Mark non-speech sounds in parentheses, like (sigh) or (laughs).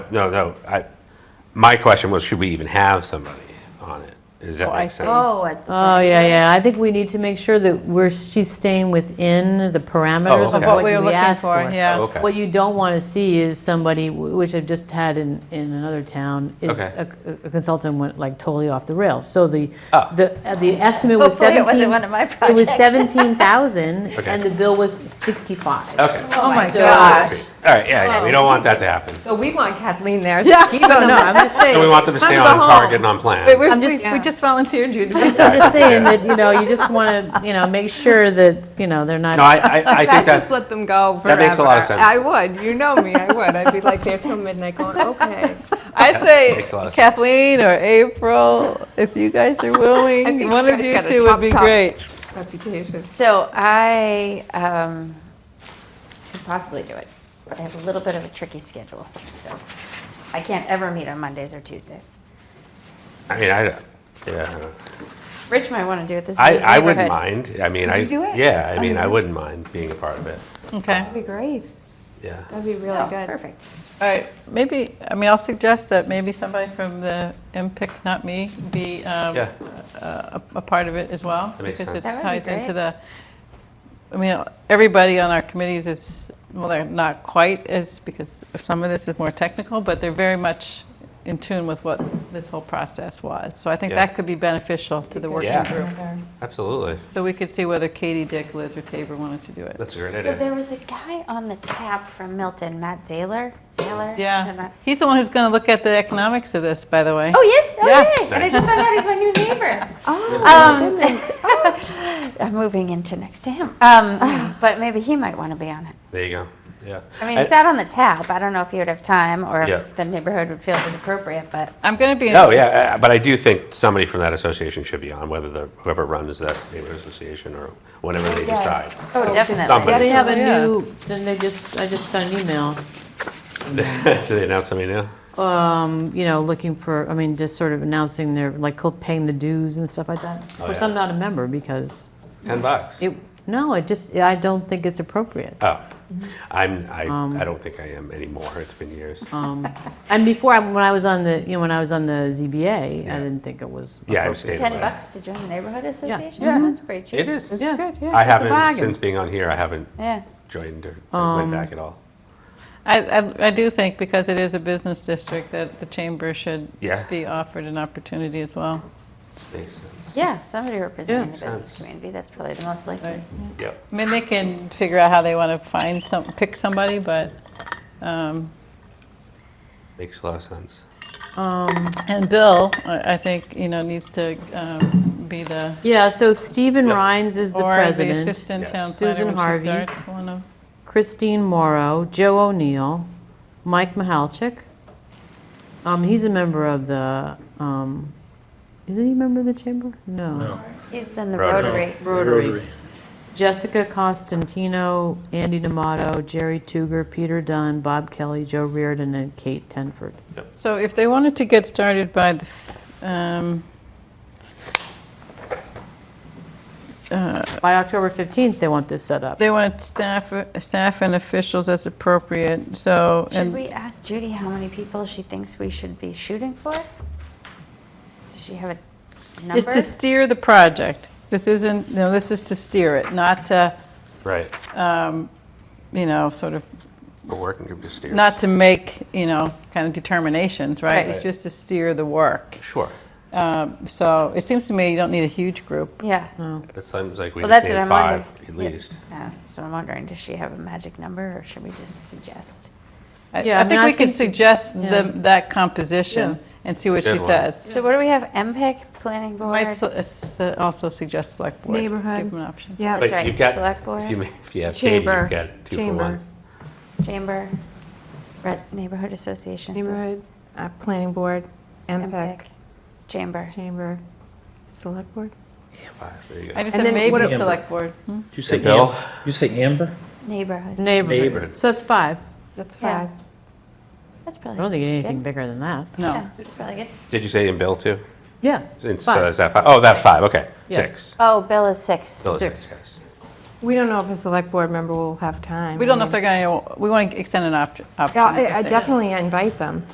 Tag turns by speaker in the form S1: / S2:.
S1: no, no, I, my question was, should we even have somebody on it? Does that
S2: Oh, I
S1: make
S2: see.
S1: sense?
S3: Oh, as the.
S4: Oh, yeah, yeah, I think we need to make sure that we're, she's staying within the parameters of
S1: Oh, okay.
S4: what
S2: What we were
S4: we
S2: looking
S4: asked
S2: for,
S4: for.
S2: yeah.
S1: Oh, okay.
S4: What you don't want to see is somebody, w- which I've just had in, in another town, is
S1: Okay.
S4: a a consultant went like totally off the rails. So the,
S1: Oh.
S4: the, uh, the estimate was
S3: Hopefully
S4: 17.
S3: it wasn't one of my
S4: It was
S3: projects.
S4: 17,000
S1: (laughs) Okay.
S4: and the bill was 65.
S1: Okay,
S2: Oh my
S4: So-
S2: gosh.
S1: all right, yeah, yeah, we don't want that to happen.
S5: So we want Kathleen there.
S2: Yeah.
S5: Keep
S4: (laughs)
S5: them
S4: No, no, I'm just saying.
S1: So we want them to stay
S2: Time
S1: on
S2: to go
S1: target and
S2: home.
S1: on plan.
S2: Wait, we,
S4: I'm
S2: we,
S4: just-
S2: we just volunteered you to be
S4: I'm just saying that, you know, you just want to, you know, make sure that, you know,
S1: (laughs)
S4: they're
S1: No,
S4: not,
S1: I, I, I think
S5: I'd just
S1: that,
S5: let them go forever.
S1: That makes a lot of sense.
S5: I would, you know me, I would. I'd be like there till midnight
S2: (laughs)
S5: going, okay.
S2: I
S1: makes a lot
S2: say
S1: of sense.
S2: Kathleen or April, if you guys are
S5: I
S2: willing,
S5: think
S2: one
S5: you
S2: of
S5: guys
S2: you
S5: got a
S2: two would be
S5: top-top.
S2: great.
S5: Reputation.
S3: So I um, could possibly do it, but I have a little bit of a tricky schedule. So I can't ever meet on Mondays or Tuesdays.
S1: I mean, I, don't- yeah,
S3: Rich might want to do it. This is
S1: I,
S3: his
S1: I wouldn't
S3: neighborhood.
S1: mind, I mean, I.
S3: you do it?
S1: Yeah, I mean, I wouldn't mind being a part of it,
S2: Okay.
S5: That'd be great.
S1: yeah.
S5: That'd be really
S3: Oh,
S5: good.
S3: perfect.
S2: All right, maybe, I mean, I'll suggest that maybe somebody from the MPIC, not me, be um,
S1: Yeah.
S2: a a part of it as well.
S1: That makes sense.
S2: Because
S3: That
S2: it
S3: would be
S2: ties into
S3: great.
S2: the, I mean, everybody on our committees is, well, they're not quite as, because some of this is more technical, but they're very much in tune with what this whole process was. So I think
S1: Yeah.
S2: that could be beneficial to the working
S1: Yeah.
S2: group.
S1: Absolutely,
S2: So we could see whether Katie, Dick, Liz, or Tabor wanted to do it.
S1: that's a great
S3: So
S1: idea.
S3: there was a guy on the tap from Milton, Matt Zaylor. Zaylor? I don't
S2: Yeah.
S3: know.
S2: He's the one who's going to look at the economics of this, by the way.
S3: Oh yes, oh
S2: Yeah.
S3: yay! And I just found out he's my new neighbor. um, (laughs) I'm moving into next to him, um, but maybe he might want to be on it.
S1: There you go, yeah.
S3: I mean, he sat on the tap. I don't know if he would have time or
S1: Yeah.
S3: if the neighborhood would feel it was appropriate, but
S2: I'm going
S1: (laughs)
S2: to be in
S1: No, yeah, uh, but I do think somebody from that association should be on, whether the, whoever runs that neighborhood association or whatever they decide. (laughs)
S3: oh, definitely.
S1: Somebody.
S4: they have a
S2: Yeah.
S4: new, then they just, I just got an email,
S3: Mm-hmm.
S1: Do they announce somebody now?
S4: um, you know, looking for, I mean, just sort of announcing their, like, co- paying the dues and stuff like that. Of
S1: Oh,
S4: course,
S1: yeah.
S4: I'm not a member because
S3: Mm-hmm.
S1: Ten bucks?
S4: it, no, I just, I don't think it's appropriate.
S1: Oh,
S3: Mm-hmm.
S1: I'm,
S3: Um,
S1: I, I don't think I am anymore, it's been years.
S3: uh,
S4: And before, I- when I was on the, you know, when I was on the ZBA,
S1: Yeah.
S4: I didn't think it was
S1: Yeah, I've
S4: appropriate.
S1: stayed
S3: Ten
S1: away.
S3: bucks to join the neighborhood association.
S4: Yeah.
S3: that's pretty cheap.
S1: It is.
S4: Yeah.
S1: I haven't,
S4: bargain.
S1: since being on here, I haven't
S3: Yeah.
S1: joined or went back at
S3: Um,
S1: all.
S2: I, I, I do think because it is a business district that the chamber should
S1: Yeah.
S2: be offered an opportunity as well.
S1: Makes sense.
S3: Yeah, somebody representing
S4: Yeah.
S3: the business community. That's probably the most likely.
S1: Yep.
S2: I mean, they can figure out how they want to find some, pick somebody, but, um,
S1: Makes a lot of sense.
S4: Um,
S2: and Bill, I, I think, you know, needs to, um, be the,
S4: Yeah, so Stephen
S1: Yep.
S4: Rhines is the
S2: or the
S4: president,
S2: assistant
S1: Yes.
S2: town planner,
S4: Susan
S2: when she
S4: Harvey.
S2: starts one of,
S4: Christine Morrow, Joe O'Neill, Mike Mahalchik. Um, he's a member of the, um, isn't he a member of the chamber? No.
S3: He's in the
S1: Rotary.
S3: Rotary.
S4: Rotary. Jessica Costantino, Andy D'Amato, Jerry Tuger, Peter Dunn, Bob Kelly, Joe Reardon, and Kate Tenford.
S2: so if they wanted to get started by, the f- um,
S4: By October 15th, they want this set up.
S2: they wanted staff, uh, staff and officials as appropriate, so.
S3: Should
S2: and-
S3: we ask Judy how many people she thinks we should be shooting for? Does she have a number?
S2: It's to steer the project. This isn't, no, this is to steer it, not to, um,
S1: Right.
S2: you know, sort of,
S1: A working group just steers.
S2: not to make, you know, kind of determinations, right?
S3: Right.
S2: It's just to steer the work.
S1: Sure.
S2: Um, So it seems to me you don't need a huge group.
S3: yeah.
S4: Oh,
S1: It sounds like we
S3: Well,
S1: just
S3: that's what
S1: need
S3: I'm
S1: five
S3: wondering.
S1: at
S3: Yeah.
S1: least.
S3: Yeah, that's what I'm wondering. Does she have a magic number or should we just suggest?
S2: I
S4: Yeah, I
S2: I
S4: mean,
S2: think
S4: I
S2: we could
S4: think-
S2: suggest the-
S4: yeah.
S2: that composition
S4: Yeah.
S2: and see what she
S1: Good one.
S2: says.
S3: So what do we have? MPIC, planning board?
S2: Might so- s- also suggest select board.
S5: Neighborhood.
S2: Give them an option.
S5: Yeah.
S3: Oh, That's
S1: But
S3: right,
S1: you've got-
S3: select board.
S1: If you, ma- if you have Katie, you've
S5: Chamber.
S1: got two for
S5: Chamber.
S1: one.
S3: Chamber, Re- Neighborhood Association. so-
S5: Neighborhood, uh, planning board, MPEC,
S3: MPEC, Chamber.
S5: chamber, select board?
S1: Five, there you go.
S2: I just
S5: And
S2: said
S5: then what
S2: maybe
S5: a-
S2: select board.
S6: Did you say
S1: Yeah, Bill?
S6: Amber? You say Amber?
S3: Neighborhood.
S4: Neighborhood.
S6: Neighborhood.
S4: So that's five.
S5: That's
S3: Yeah.
S5: five.
S3: That's
S4: I
S3: probably
S4: don't think you need
S3: good.
S4: anything bigger than that.
S2: No.
S3: Yeah, that's probably good.
S1: Did you say in Bill too?
S4: Yeah.
S1: It's, uh,
S4: Five.
S1: Is that five? Oh, that five, okay.
S4: Yeah.
S1: Six.
S3: Oh, Bill is six.
S1: Bill is
S4: Six.
S1: yes.
S5: We don't know if a select board member will have time.
S2: We don't know if
S5: I
S2: they're going to, we want to extend an opt- option.
S5: mean- Yeah,
S2: if
S5: I- I
S2: they-
S5: definitely invite them.